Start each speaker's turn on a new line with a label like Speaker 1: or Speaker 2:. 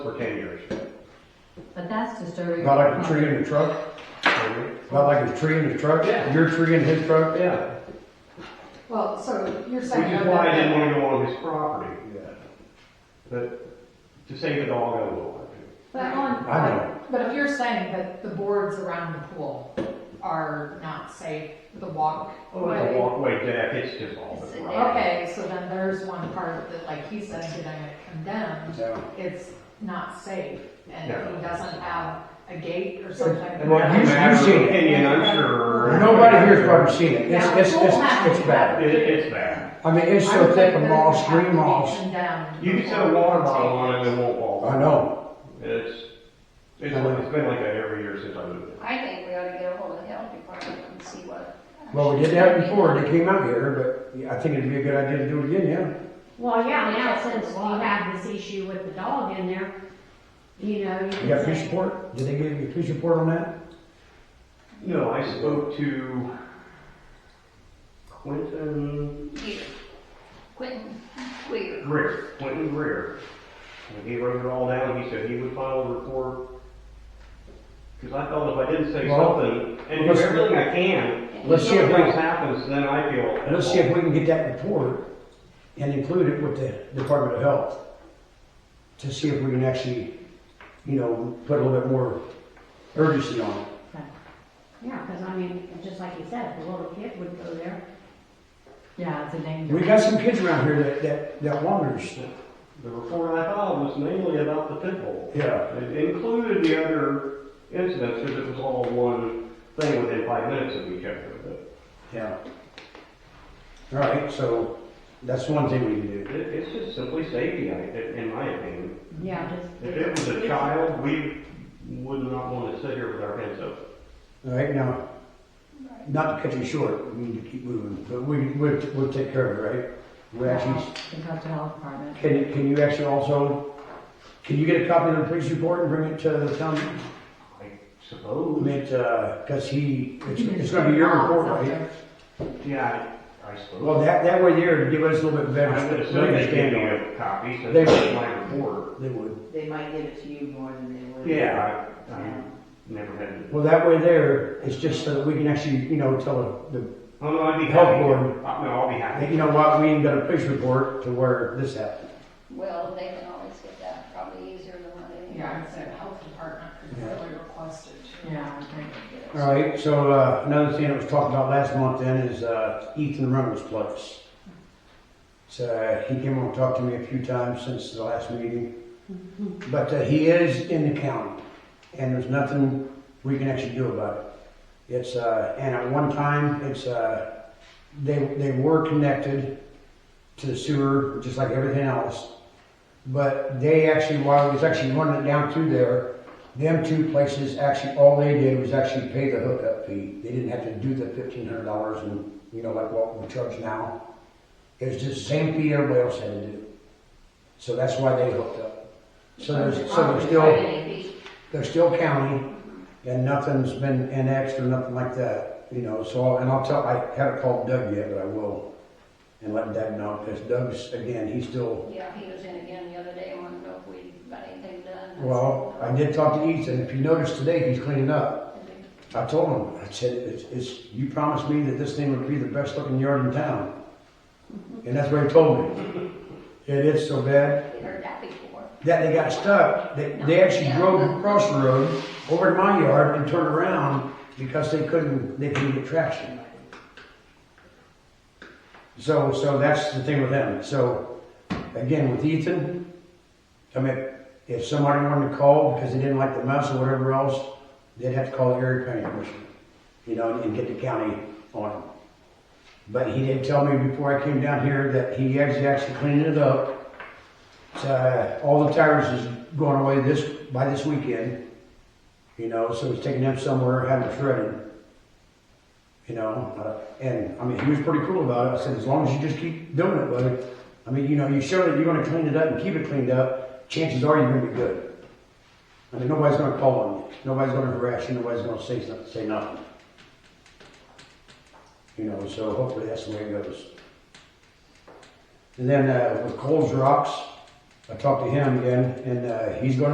Speaker 1: for ten years.
Speaker 2: But that's disturbing.
Speaker 3: Not like a tree in the truck, not like a tree in the truck,
Speaker 1: Yeah.
Speaker 3: your tree in his truck.
Speaker 1: Yeah,
Speaker 4: Well, so you're
Speaker 1: which
Speaker 4: saying.
Speaker 1: is why I didn't wanna go on his property. But to save the dog, I will.
Speaker 4: But on-
Speaker 3: I know.
Speaker 4: But if you're saying that the boards around the pool are not safe, the walk.
Speaker 1: Oh, the walkway deck, it's just all
Speaker 2: It's
Speaker 1: the
Speaker 2: a
Speaker 1: rock.
Speaker 4: Okay, so then there's one part that, like he said, getting it condemned,
Speaker 3: Yeah.
Speaker 4: it's not safe. And
Speaker 1: No.
Speaker 4: he doesn't have a gate or something.
Speaker 1: And that's a
Speaker 3: you-
Speaker 1: matter of
Speaker 3: you've seen it.
Speaker 1: Opinion, I'm sure.
Speaker 3: Nobody here's probably seen it, it's,
Speaker 4: Now,
Speaker 3: it's,
Speaker 4: pool
Speaker 3: it's,
Speaker 4: has
Speaker 3: it's
Speaker 4: to
Speaker 3: bad.
Speaker 4: be-
Speaker 1: It, it's bad.
Speaker 3: I mean, it's
Speaker 4: I
Speaker 3: so
Speaker 4: would
Speaker 3: thick
Speaker 4: think
Speaker 3: of
Speaker 4: that
Speaker 3: moss,
Speaker 4: it would have
Speaker 3: green
Speaker 4: to be
Speaker 3: moss.
Speaker 4: condemned
Speaker 1: You can set a
Speaker 4: before
Speaker 1: water
Speaker 4: we take
Speaker 1: bottle on it,
Speaker 4: it.
Speaker 1: and it won't fall.
Speaker 3: I know,
Speaker 1: It's, it's, like- it's been like that every year since I moved
Speaker 5: I think we ought to get a hold of the health department and see what.
Speaker 3: well, we did that before, and it came out here, but I think it'd be a good idea to do it again, yeah.
Speaker 6: Well, yeah, now since we have this issue with the dog in there, you know, you
Speaker 3: You
Speaker 6: can
Speaker 3: got police
Speaker 6: say,
Speaker 3: report, did they give you a police report on that?
Speaker 1: in. No, I spoke to Quentin
Speaker 5: Here, Quentin, Queer.
Speaker 1: Greer, Quentin Greer. When he wrote it all down, he said he would file a report. Cause I felt if I didn't say
Speaker 3: Well,
Speaker 1: something, and do
Speaker 3: let's-
Speaker 1: everything I can,
Speaker 3: Let's see
Speaker 1: if
Speaker 3: if
Speaker 1: things
Speaker 3: we,
Speaker 1: happens, then I feel.
Speaker 3: let's see if we can get that report and include it with the Department of Health. To see if we can actually, you know, put a little bit more urgency on it.
Speaker 6: yeah, because I mean, just like you said, if a little kid would go there.
Speaker 2: Yeah, it's a danger.
Speaker 3: We got some kids around here that, that, that wanders.
Speaker 1: The report I filed was mainly about the pit bull.
Speaker 3: Yeah.
Speaker 1: It included the other incidents, because it was all one thing within five minutes of each other, but
Speaker 3: Yeah. All right, so that's one thing we can do.
Speaker 1: it, it's just simply safety, I, in my opinion.
Speaker 6: Yeah, just.
Speaker 1: If it was a child, we would not want to sit here with our hands up.
Speaker 3: All right, now, not to cut you short, we need to keep moving, but we, we'll, we'll take care of it, right? We actually,
Speaker 2: The Coastal Health Department.
Speaker 3: can, can you actually also, can you get a copy of the police report and bring it to the town?
Speaker 1: I
Speaker 3: I
Speaker 1: suppose,
Speaker 3: mean, uh, cause he, it's, it's gonna be your report, right?
Speaker 1: yeah, I I suppose.
Speaker 3: Well, that, that way there to give us a little bit better.
Speaker 1: I would assume they gave me
Speaker 3: understanding.
Speaker 1: a copy, since
Speaker 3: They-
Speaker 1: that's my report.
Speaker 3: They would.
Speaker 7: They might give it to you more than they would.
Speaker 1: Yeah, I, I never had to.
Speaker 3: Well, that way there, it's just so that we can actually, you know, tell the,
Speaker 1: Oh, no, I'd be
Speaker 3: Health
Speaker 1: happy.
Speaker 3: board.
Speaker 1: Uh, No, I'll be
Speaker 3: Hey,
Speaker 1: happy.
Speaker 3: You know what, we ain't got a police report to where this happened.
Speaker 5: Well, they can always get that, probably easier than what they.
Speaker 4: Yeah, I'd say the health department could really request it too.
Speaker 2: Yeah, I think.
Speaker 3: All right, so, uh, another thing that was talked about last month then is, uh, Ethan Reynolds' place. So, uh, he came over and talked to me a few times since the last meeting. But, uh, he is in the county, and there's nothing we can actually do about it. It's, uh, and at one time, it's, uh, they, they were connected to the sewer, just like everything else. But they actually, while it was actually running it down through there, them two places, actually, all they did was actually pay the hookup fee. They didn't have to do the fifteen hundred dollars and, you know, like what we charge now. It was just the same fee everybody else had to do. So that's why they hooked up. So there's, so there's still, they're still county, and nothing's been annexed or nothing like that, you know, so, and I'll tell, I haven't called Doug yet, but I will. And let Doug know, because Doug's, again, he's still
Speaker 5: Yeah, he was in again the other day, and wanted to know if we got anything done.
Speaker 3: Well, I did talk to Ethan, if you notice today, he's cleaning up. I told him, I said, it's, it's, you promised me that this thing would be the best looking yard in town. And that's what he told me. It is so bad
Speaker 5: We heard that before.
Speaker 3: that they got stuck, they, they actually drove across the road over to my yard and turned around because they couldn't, they couldn't get traction. So, so that's the thing with them. So, again, with Ethan, I mean, if somebody wanted to call because they didn't like the mess or whatever else, they'd have to call the area county commission, you know, and get the county on them. But he did tell me before I came down here that he actually actually cleaned it up. Uh, all the tires is going away this, by this weekend, you know, so it's taking them somewhere, having it shredded. You know, uh, and, I mean, he was pretty cool about it, I said, as long as you just keep doing it, buddy. I mean, you know, you show that you're gonna clean it up and keep it cleaned up, chances are you're gonna be good. I mean, nobody's gonna call on you, nobody's gonna harass you, nobody's gonna say, something- say nothing. You know, so hopefully that's the way it goes. And then, uh, with Coles Rocks, I talked to him again, and, uh, he's gonna